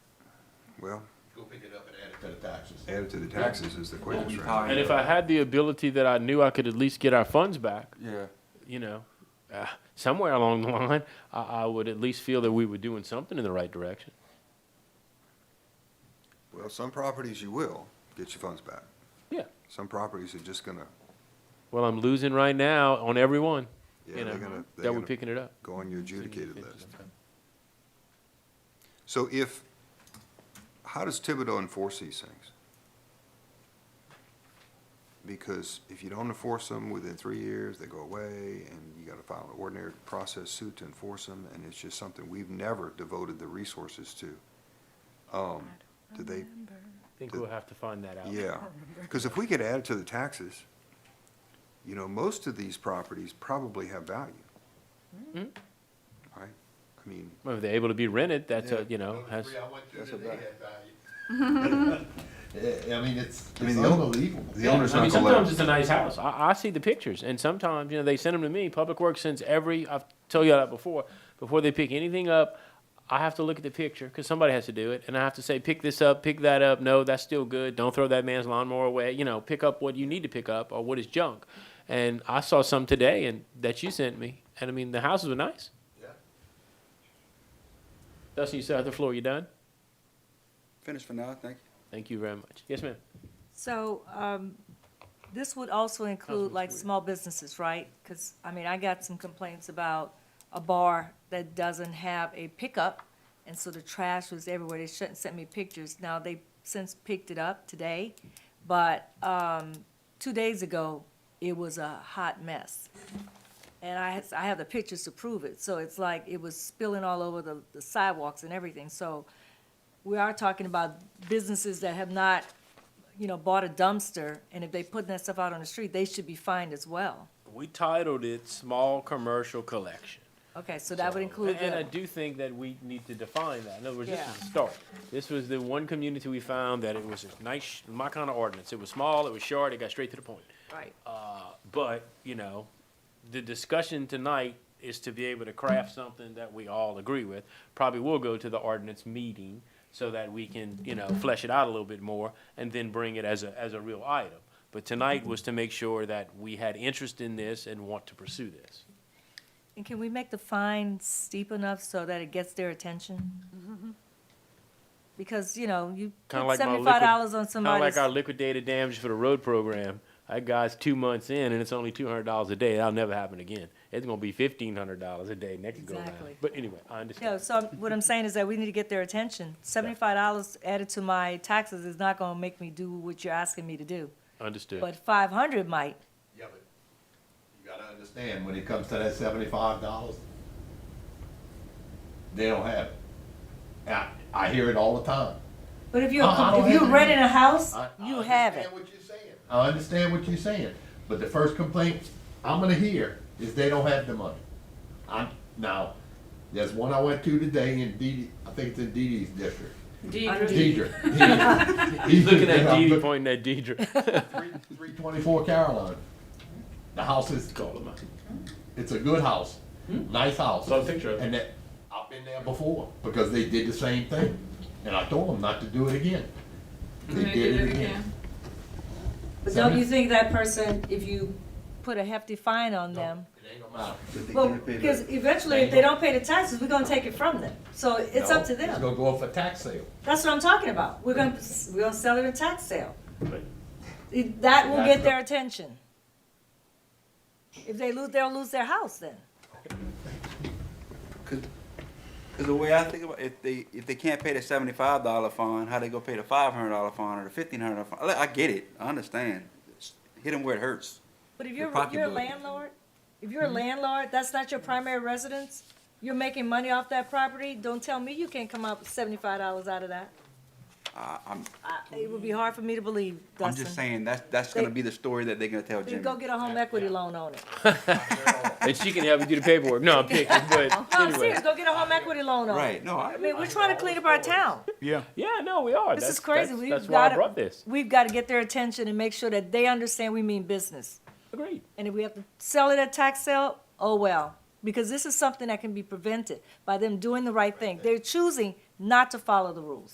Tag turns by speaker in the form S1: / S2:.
S1: Well,
S2: Go pick it up and add it to the taxes.
S1: added to the taxes is the quickest route.
S3: And if I had the ability that I knew I could at least get our funds back,
S4: Yeah,
S3: you know, uh, somewhere along the line, I, I would at least feel that we were doing something in the right direction.
S1: Well, some properties you will get your funds back.
S3: Yeah.
S1: Some properties are just gonna,
S3: Well, I'm losing right now on every one,
S1: yeah,
S3: you know,
S1: they're gonna, they're
S3: that we're
S1: gonna
S3: picking it up.
S1: go on your adjudicated list. So if, how does Thibodeau enforce these things? Because if you don't enforce them within three years, they go away, and you gotta file an ordinary process suit to enforce them, and it's just something we've never devoted the resources to. Um, do they,
S3: I think we'll have to find that out.
S1: yeah, because if we could add it to the taxes, you know, most of these properties probably have value. Right?
S3: Mhm.
S1: I mean,
S3: Well, If they're able to be rented, Oh, that's a, you know,
S2: Those
S3: has,
S2: three I went through
S4: That's a
S2: today
S4: bet.
S2: had value. Yeah, I mean, it's,
S1: I mean,
S2: it's
S1: the old-
S2: unbelievable.
S1: the
S3: Yeah,
S1: owner's
S3: I
S1: not
S3: mean,
S1: gonna let.
S3: sometimes it's a nice house. I, I see the pictures, and sometimes you know they send them to me. Public Works sends every. I've told you that before. Before they pick anything up, I have to look at the picture because somebody has to do it, and I have to say, pick this up, pick that up. No, that's still good. Don't throw that man's lawnmower away. You know, pick up what you need to pick up or what is junk. And I saw some today, and that you sent me, and I mean the houses were nice.
S2: Yeah.
S3: Dustin, you sat on the floor. You done?
S4: finished for now, thank
S3: Thank you very much. Yes, ma'am.
S5: So, um, this would also include like small businesses, right? Because, I mean, I got some complaints about a bar that doesn't have a pickup, and so the trash was everywhere. They shouldn't send me pictures. Now, they since picked it up today, but, um, two days ago, it was a hot mess. And I, has- I have the pictures to prove it, so it's like, it was spilling all over the, the sidewalks and everything. So, we are talking about businesses that have not you know, bought a dumpster, and if they put that stuff out on the street, they should be fined as well.
S3: We titled it "Small Commercial Collection."
S5: Okay, so that would
S3: So-
S5: include
S3: And and I
S5: them.
S3: do think that we need to define that. In other words, this
S5: Yeah.
S3: is a start. This was the one community we found that it was a nice, my kind of ordinance. It was small, it was short, it got straight to the point.
S5: Right.
S3: Uh, But, you know, the discussion tonight is to be able to craft something that we all agree with. Probably will go to the ordinance meeting so that we can, you know, flesh it out a little bit more and then bring it as a, as a real item. But tonight was to make sure that we had interest in this and want to pursue this.
S5: And can we make the fine steep enough so that it gets their attention? Because, you know, you
S3: Kinda
S5: put
S3: like my
S5: seventy-five dollars on
S3: Kind of
S5: somebody's,
S3: like our liquidated damages for the road program. That guy's two months in, and it's only two hundred dollars a day. That'll never happen again. It's gonna be fifteen hundred dollars a day next go round.
S5: Exactly.
S3: But anyway, I
S5: you know,
S3: understand.
S5: so I'm- what I'm saying is that we need to get their attention. Seventy-five dollars added to my taxes is not gonna make me do what you're asking me to do,
S3: Understood.
S5: but five hundred might.
S2: Yeah, but you gotta understand, when it comes to that seventy-five dollars, they don't have it. And I, I hear it all the time.
S5: But if you're,
S2: I- I don't
S5: if
S2: have
S5: you're
S2: to-
S5: renting a house,
S2: I- I
S5: you have
S2: understand
S5: it.
S2: what you're saying. I understand what you're saying, but the first complaint I'm gonna hear is they don't have the money. I'm, now, there's one I went to today in Dee, Dee- I think it's in Dee Dee's district. Deidre. Deidre.
S3: He's looking at
S2: I'm
S3: Deidre,
S2: looking-
S3: pointing at Deidre.
S2: 324 Caroline. The house is It's a good house, nice house.
S3: Hmm? Saw a picture of it.
S2: And that, I've been there before because they did the same thing, and I told them not to do it again. They did it again.
S5: But don't you think that person, if you put a hefty fine on them,
S2: It ain't gonna matter.
S4: you.
S5: Well, because eventually, if they don't pay the taxes, we're gonna take it from them. So it's
S2: No,
S5: up to
S2: It's
S5: them.
S2: gonna go off a tax sale.
S5: That's what I'm talking about. We're gonna, we're gonna sell it at tax sale.
S3: Right.
S5: It- That will get their attention. If they lose, they'll lose their house then.
S4: Because the way I think about if they if they can't pay the seventy five dollar fine, how they go pay the five hundred dollar fine or the fifteen hundred dollar fine? I I get it, I understand. It's- Hit them where it hurts.
S5: But if
S4: Their
S5: you're,
S4: pocketbook.
S5: you're a landlord, if
S4: Mm-hmm.
S5: you're a landlord, that's not your primary residence, you're making money off that property, don't tell me you can't come up with seventy-five dollars out of that.
S4: I, I'm
S5: I- It would be hard for me to believe,
S4: I'm just
S5: Dustin.
S4: saying that's that's gonna
S5: They-
S4: be the story that they're gonna tell
S5: You
S4: Jimmy.
S5: go get a home equity loan on it.
S3: And she can help you do the paperwork. No, I'm picking, but
S5: No, Oh, I'm
S3: anyway.
S5: serious, go get a home equity loan on it.
S4: Right? No, I,
S5: I mean, we're trying to clean up our town.
S3: Yeah, no, we are.
S5: This
S3: That's-
S5: is crazy.
S3: that's-
S5: We've
S3: That's why I
S5: gotta-
S3: brought this.
S5: We've got to get their attention and make sure that they understand we mean business.
S3: Agreed.
S5: And if we have to sell it at tax sale, oh well. Because this is something that can be prevented by them doing the right thing. They're choosing not to follow the rules.